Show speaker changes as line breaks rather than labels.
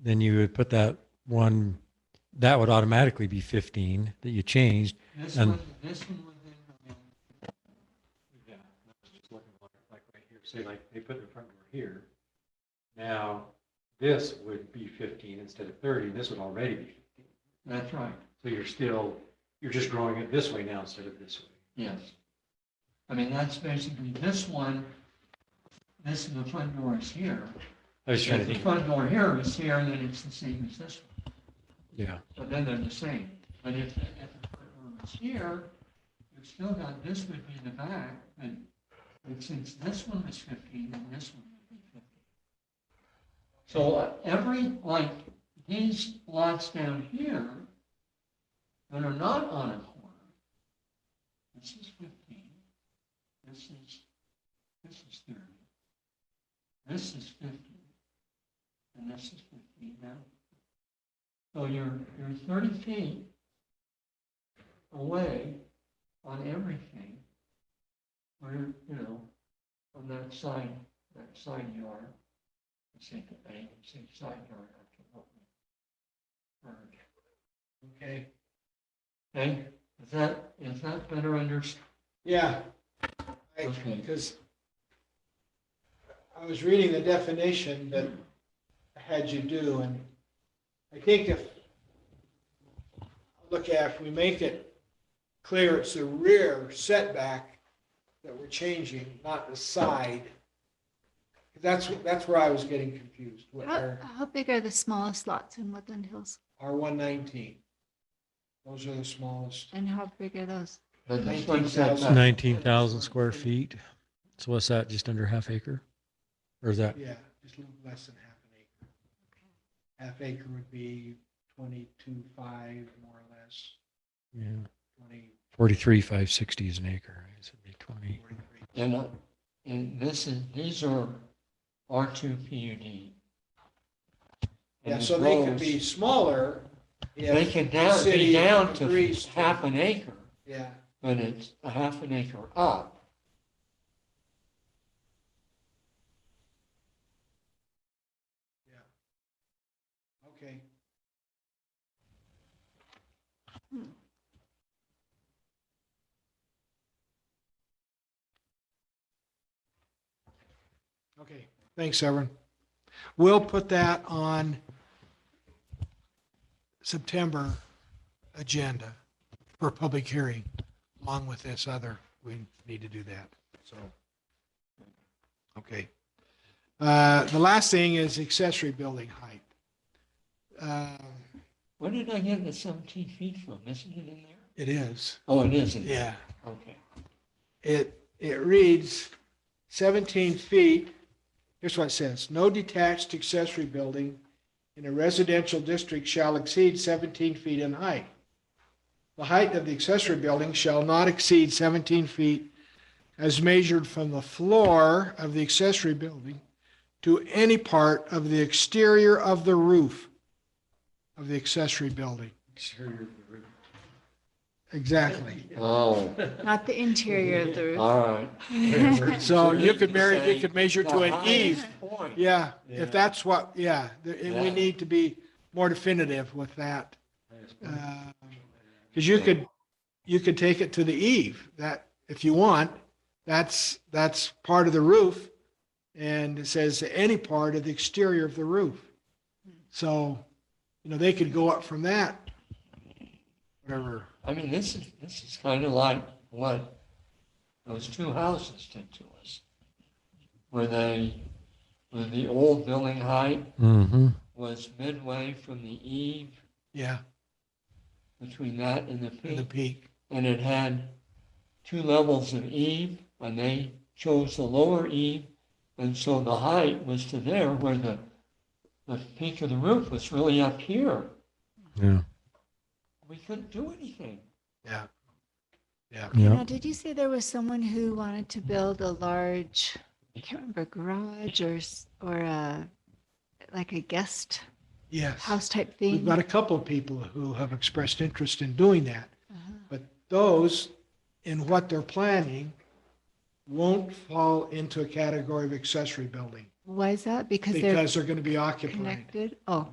then you would put that one, that would automatically be 15 that you changed.
This
And-
one, this one would then come in.
Yeah, I was just looking like, like right here, say like they put the front door here. Now, this would be fifteen instead of thirty, this would already be fifteen.
That's right,
So you're still, you're just growing it this way now instead of this way.
yes. I mean, that's basically, this one, this is the front door is here.
I was trying to
If the
think,
front door here is here, then it's the same as this one.
yeah,
So then they're the same. But if, if the front door is here, you've still got, this would be the back, but but since this one is 15, then this one would be 15. So uh, every, like, these lots down here that are not on a corner, this is 15, this is, this is 30, this is 15, and this is 15 now. So you're, you're 30 feet away on everything, where, you know, on that side, that side yard. I think, I think side yard, I can help me. Bird. Okay. Okay, is that, is that better understood?
Yeah.
Okay.
Because I was reading the definition that I had you do, and I think if, look at, if we make it clear it's the rear setback that we're changing, not the side. That's, that's where I was getting confused, with
How,
our,
how big are the smallest lots in Woodland Hills
our 119. Those are the smallest.
and how big are those?
But this
Nineteen
one says-
thousand.
nineteen thousand square feet. So what's that, just under half acre? Or is that,
Yeah, just a little less than half an acre. Half acre would be twenty-two, five, more or less,
yeah,
twenty,
forty-three, five sixty is an acre, right? So it'd be twenty.
forty-three.
And, uh, and this is, these are R2 PUD.
Yeah,
And
so
it
they could
grows-
be smaller
They
if,
could down,
city
be down to
agrees to-
half an acre,
yeah,
but it's a half an acre up.
okay. Hmm. Okay, thanks, Severin. We'll put that on September agenda for public hearing, along with this other. We need to do that, so. Okay. Uh, The last thing is accessory building height. Uh,
Where did I get the 17 feet from? Isn't it in there?
It is,
Oh, it is in there.
yeah.
Okay.
It, it reads 17 feet. Here's what it says. No detached accessory building in a residential district shall exceed 17 feet in height. The height of the accessory building shall not exceed 17 feet as measured from the floor of the accessory building to any part of the exterior of the roof of the accessory building. Exactly.
Oh,
Not the interior of the
Uh,
roof.
all right.
So you could marry, you could measure to
The
an E. eve.
highest point.
Yeah,
Yeah.
if that's what, yeah, th- we
Yeah.
need to be more definitive with that. Because you could, you could take it to the eve, that, if you want, that's, that's part of the roof. And it says any part of the exterior of the roof. So, you know, they could go up from that. Whatever,
I mean, this is, this is kind of like what those two houses did to us. Where they, where the old building height
Mm-hmm.
was midway from the eve,
yeah,
between that and the
in the
peak.
peak.
And it had two levels of eve, and they chose the lower eve. And so the height was to there where the, the peak of the roof was really up here.
Yeah,
We couldn't do anything.
Yeah,
yeah.
Now, did you say there was someone who wanted to build a large, I can't remember, garage or, s- or a, like a guest
yes.
house type
We've
thing?
got a couple of people who have expressed interest in doing that.
Uh-huh.
But those in what they're planning won't fall into a category of accessory building
Why is that? Because they're
because they're going to be occupied.
connected? Oh.